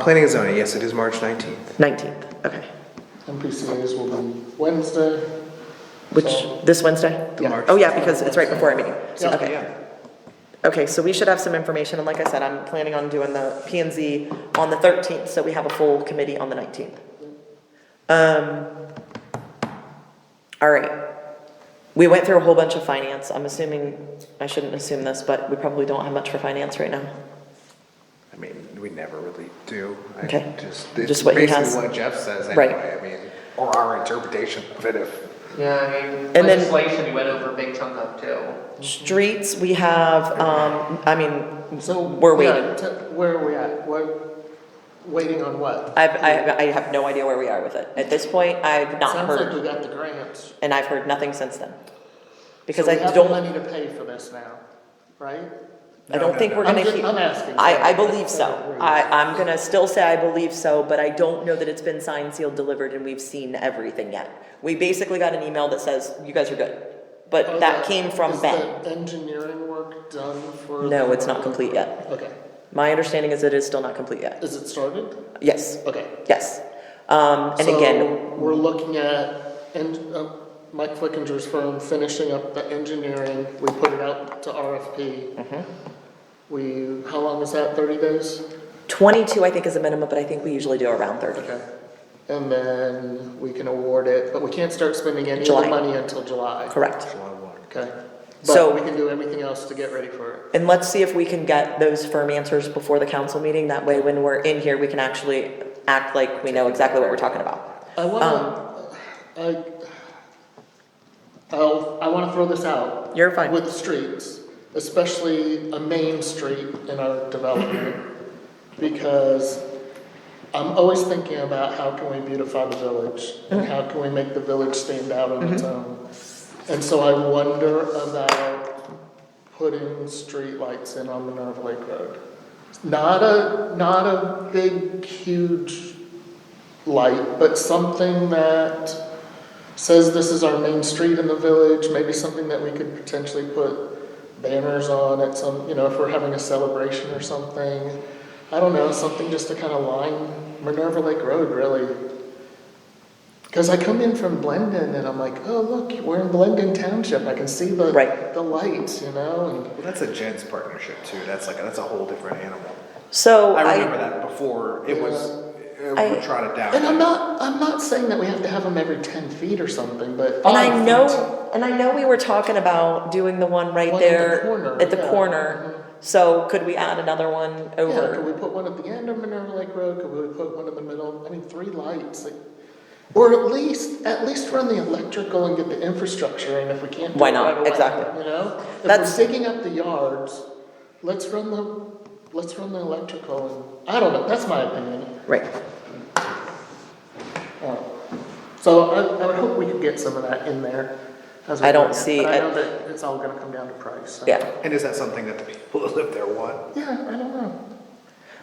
Planning and zoning, yes, it is March 19th. 19th, okay. MPCA's will be Wednesday. Which, this Wednesday? Yeah. Oh, yeah, because it's right before our meeting. Yeah. Okay. Okay, so we should have some information, and like I said, I'm planning on doing the P and Z on the 13th, so we have a full committee on the 19th. Um, all right. We went through a whole bunch of finance. I'm assuming, I shouldn't assume this, but we probably don't have much for finance right now. I mean, we never really do. I Okay. Just, Just it's what he has. basically what Jeff says Right. anyway, I mean, or our interpretation of it if. Yeah, I mean, then- legislation we went over a big chunk of too. Streets, we have, um, I mean, So. we're waiting. yeah, te- Where are we at? What, waiting on what? I've, I, I have no idea where we are with it. At this point, I've not Sounds like we heard, got the grants. and I've heard nothing since then. Because So I we have the don't, Money to pay for this now, right? I don't think we're I'm gonna just- keep. I'm asking. I, I believe so. I, I'm gonna still say I believe so, but I don't know that it's been signed, sealed, delivered, and we've seen everything yet. We basically got an email that says, you guys are good, but that came from Oh, Is Ben. the engineering work done for? No, the- it's not complete yet. Okay. My understanding is it is still not complete yet. Is it started? Yes, Okay. yes. Um, and So again, We're looking at, and, uh, Mike Flickinger's firm finishing up the engineering, we put it out to RFP. Mm-hmm. We, how long is that, thirty days? twenty-two I think is a minimum, but I think we usually do around thirty. Okay. And then we can award it, but we can't start spending any of July. the money until July. Correct. Okay. So- But we can do everything else to get ready for it. And let's see if we can get those firm answers before the council meeting, that way when we're in here, we can actually act like we know exactly what we're talking about. I wanna, Um, I, I'll, I wanna throw this out. You're fine. With streets, especially a main street in our development, because I'm always thinking about how can we beautify the village? And how can we make the village stand out on Mm-hmm. its own? And so I wonder about putting streetlights in on Minerva Lake Road. Not a, not a big, huge light, but something that says this is our main street in the village, maybe something that we could potentially put banners on at some, you know, if we're having a celebration or something. I don't know, something just to kind of line Minerva Lake Road, really. Because I come in from Blendon and I'm like, oh, look, we're in Blendon Township, I can see the, Right. the lights, you know, and Well, that's a Jen's partnership too, that's like, that's a whole different animal. So I remember I, that before, it was, uh, I- we trotted down. And I'm not, I'm not saying that we have to have them every ten feet or something, but. and I five feet. know, and I know we were talking about doing the one right One at the there corner, at the yeah. corner. So could we add another one Yeah, could we over? put one at the end of Minerva Lake Road, could we put one in the middle, I mean, three lights, like, or at least, at least run the electrical and get the infrastructure, and if we can't do Why it not? right away, Exactly. You know, That's- if we're digging up the yards, let's run the, let's run the electrical, and, I don't know, that's my opinion. Right, Uh, So I, I would hope we could get some of that in there as we. I don't plan, see- But I I- know that it's all gonna come down to price, so. yeah. And is that something that the people that live there want? Yeah, I don't know.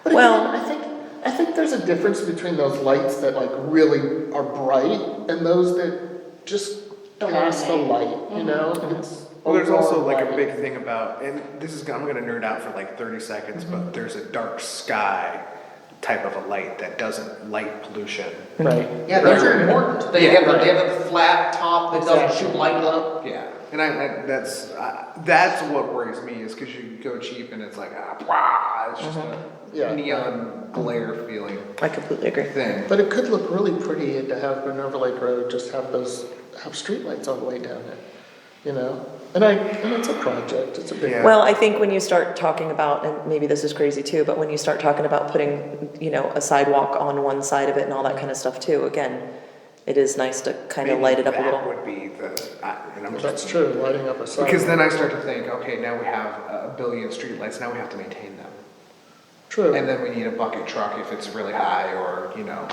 But Well- again, I think, I think there's a difference between those lights that like really are bright and those that just cast the light, Mm-hmm. you know? It's Well, there's also overall like a lighting. big thing about, and this is, I'm gonna nerd out for like thirty seconds, Mm-hmm. but there's a dark sky type of a light that doesn't light pollution. Right. Yeah, those are important. They have, a- they have a flat top that doesn't shoot light up. Yeah, and I, I that's uh, that's what worries me is because you go cheap and it's like ah, blah, it's just a Mm-hmm. Yeah. neon glare feeling I completely agree. thing. But it could look really pretty to have Minerva Lake Road just have those, have streetlights all the way down it, you know? And I, and it's a project, it's a big. Yeah. Well, I think when you start talking about, and maybe this is crazy too, but when you start talking about putting, you know, a sidewalk on one side of it and all that kind of stuff too, again, it is nice to kind of Maybe light it up a that little. Would be the I, and I'm That's just, true, lighting up a sidewalk. because then I start to think, okay, now we have a billion streetlights, now we have to maintain them, True. and then we need a bucket truck if it's really high, or you know,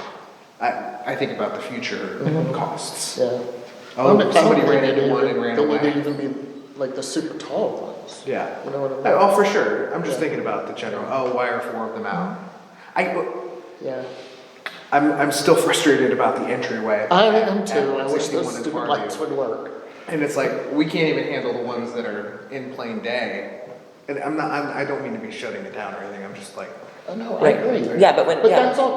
I I think about the future costs. Mm-hmm. Yeah. Oh, Well, somebody they- ran into they- one and ran They away. need to even be like the super tall ones. Yeah. You know what I mean? Oh, for sure. I'm just thinking about the general. Oh, why are four of them out? I. Yeah. I'm, I'm still frustrated about the entryway. I am at too. I wish 61 those in stupid Fairview. lights would work. And it's like, we can't even handle the ones that are in plain day. And I'm not, I'm, I don't mean to be shutting it down or anything, I'm just like, I know, I Right. agree. Yeah, but when- But yeah. that's all